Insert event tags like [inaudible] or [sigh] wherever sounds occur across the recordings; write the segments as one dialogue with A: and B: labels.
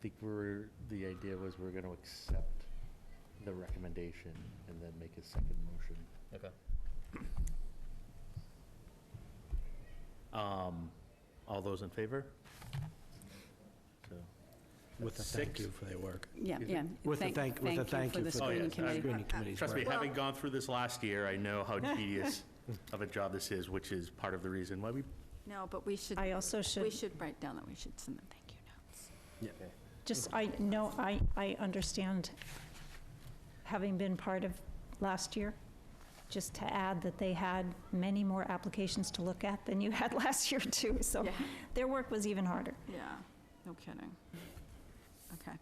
A: I think we're, the idea was we're going to accept the recommendation and then make a second motion.
B: Okay.
A: Um, All those in favor? So,
C: With a thank
A: Six.
C: you for their work.
D: Yeah,
A: Excuse me?
D: yeah.
C: With a thank, with a thank you for the
A: Oh,
D: screening
A: yes, I-
D: committee.
C: screening committee's
A: Trust me,
C: work.
A: having gone through this last year, I know
E: [laughs]
A: how tedious of a job this is, which is part of the reason why we
E: No, but we should,
F: I also
E: we
F: should,
E: should write down that we should send them thank you notes.
F: just, I, no, I, I understand, having been part of last year, just to add that they had many more applications to look at than you had [laughs] last year too, so
E: Yeah,
F: their work was even harder.
E: yeah, no kidding. Okay.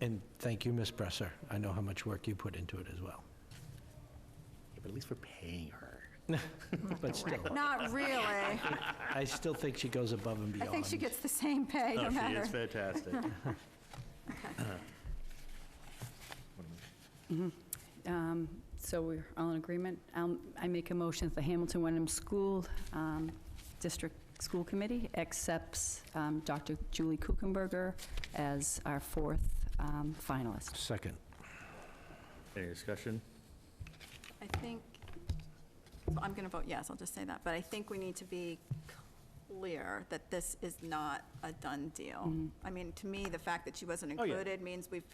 C: And thank you, Ms. Bresser. I know how much work you put into it as well.
A: Yeah, but at least we're paying her.
C: But still,
E: Not
A: [laughs]
E: really. I
C: [laughs] I still think she goes above and beyond.
E: think she gets the same pay,
A: Oh,
E: no
A: she
E: matter.
A: is fantastic.
D: Um, So we're all in agreement. Um, I make a motion that the Hamilton Wenham School um, District School Committee accepts um, Dr. Julie Kuchenberger as our fourth um, finalist.
C: Second.
A: Any discussion?
E: I think, so I'm going to vote yes, I'll just say that, but I think we need to be clear that this is not a done deal. I mean, to me, the fact that she wasn't
A: Oh, yeah.
E: included means we've,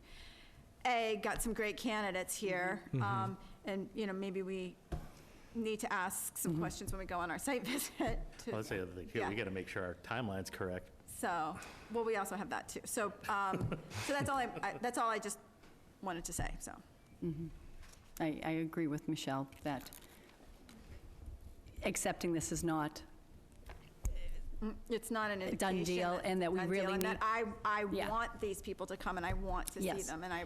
E: A, got some great candidates here,
A: Mm-hmm.
E: um, and, you know, maybe we need to ask some questions when we go on our site [laughs] visit. to-
A: Well, That's the other thing, too. We
E: Yeah.
A: got to make sure our timeline's correct.
E: So, well, we also have that too. So, um, so that's all I, I, that's all I just wanted to say, so.
D: I, I agree with Michelle that accepting this is not,
E: It's not an
D: A
E: indication.
D: done deal
E: that-
D: and that we
E: done deal
D: really
E: and that I, I
D: Yeah.
E: want these people to come and I want to see
D: Yes.
E: them and I,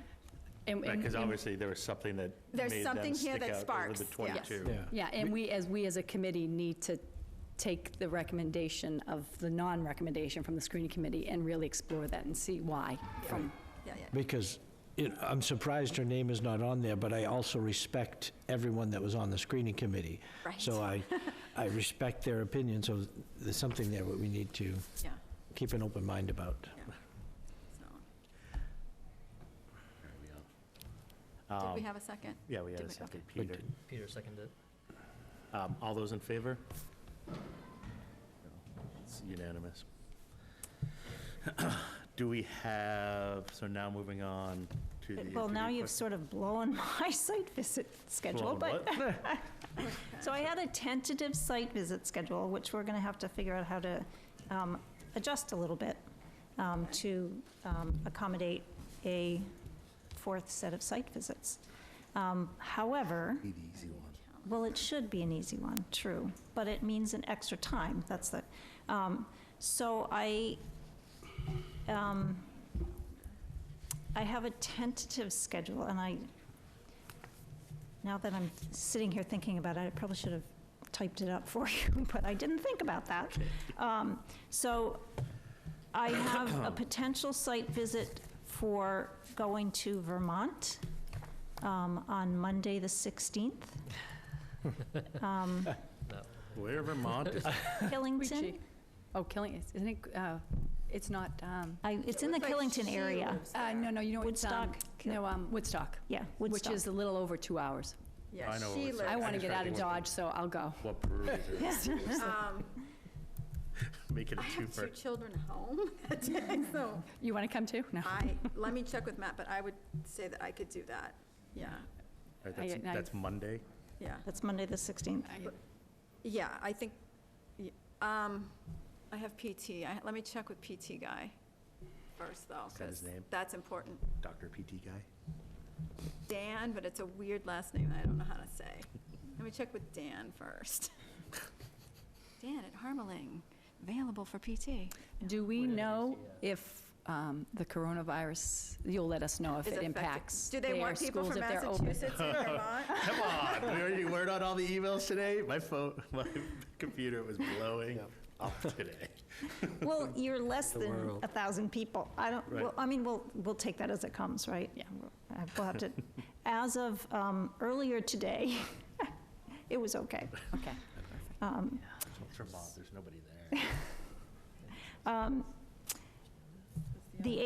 D: and-
A: Right,
D: and-
A: because
D: and-
A: obviously there was something that
E: There's
A: made them
E: something here
A: stick out
E: that
A: over the
E: sparks, yes.
A: 22.
C: Yeah.
D: Yeah, and we, as, we as a committee need to take the recommendation of the non-recommendation from the screening committee and really explore that and see why. from-
E: yeah, yeah.
C: Because it- I'm surprised her name is not on there, but I also respect everyone that was on the screening committee.
E: Right.
C: So [laughs] I, I respect their opinion, so there's something there that we need to
E: Yeah,
C: keep an open mind about.
E: so. Did we
A: Um,
E: have a second?
A: Yeah, we had
E: Did
A: a
E: we?
A: second,
C: We
A: Peter.
C: did.
B: Peter seconded.
A: Um, All those in favor? It's unanimous. [clears throat] Do we have, so now moving on to the.
F: Well, now
A: interview
F: you've
A: question-
F: sort of blown [laughs] my site visit schedule,
A: Well,
F: but.
A: what?
F: So I had a tentative site visit schedule, which we're going to have to figure out how to um, adjust a little bit um, to um, accommodate a fourth set of site visits. Um, However,
A: Be the easy one.
F: well, it should be an easy one, true, but it means an extra time, that's the, um, so I, um, I have a tentative schedule, and I, now that I'm sitting here thinking about it, I probably should have typed it up for [laughs] you, but I didn't think about that. Um, So I have a potential site visit for going to Vermont um, on Monday, the 16th, um,
A: Where Vermont is,
F: Killington.
D: Richie. Oh, Killing, isn't it, uh, it's not, um,
F: I, it's in the
E: Looks like
F: Killington
E: she
F: area.
E: lives
D: uh,
E: there.
D: no, no, you know, it's, um,
F: Woodstock, Kill-
D: no, um, Woodstock,
F: Yeah,
D: which
F: Woodstock.
D: is a little over two hours.
A: I
E: Yeah,
A: know what
E: she
A: it's like.
D: I
E: lives.
D: want to
A: just
D: get
A: tried
D: out
A: to
D: of
A: work
D: Dodge, so I'll go.
A: what brewery is it?
E: [laughs] Um,
A: [laughs] Make it a
E: I have two
A: twofer.
E: children home [laughs]
D: [laughs]
E: that day, so
D: You want to come too? No.
E: I, let me check with Matt, but I would say that I could do that. Yeah,
A: Right, That's
D: I- I-
A: that's Monday.
E: yeah.
F: That's Monday,
D: [laughs]
F: the 16th.
D: I-
E: Yeah, I think, y- um, I have PT. I, let me check with PT guy first though,
A: that his
E: because
A: name?
E: that's important.
A: Dr. PT guy.
E: Dan, but it's a weird last name that I don't know how to say. Let me check with Dan first. Dan at Harmeling, available for PT.
D: Do we
B: Where did I
D: know
B: see that?
D: if um, the coronavirus, you'll let us know if
E: Is
D: it
E: affected-
D: impacts
E: Do they
D: their
E: want people
D: schools
E: from
D: if they're open?
E: Massachusetts and
D: [laughs]
E: Vermont?
A: Come on, we already word on all the emails today. My phone, [laughs] my computer was blowing up today.
F: Well, you're less than
C: world.
F: a 1,000 people. I don't,
A: Right.
F: well, I mean, we'll, we'll take that as it comes, right?
D: Yeah.
F: We'll uh, we'll have to, as of um, earlier today, [laughs] it was okay.
D: Okay.
A: Vermont, there's nobody there.
F: Um,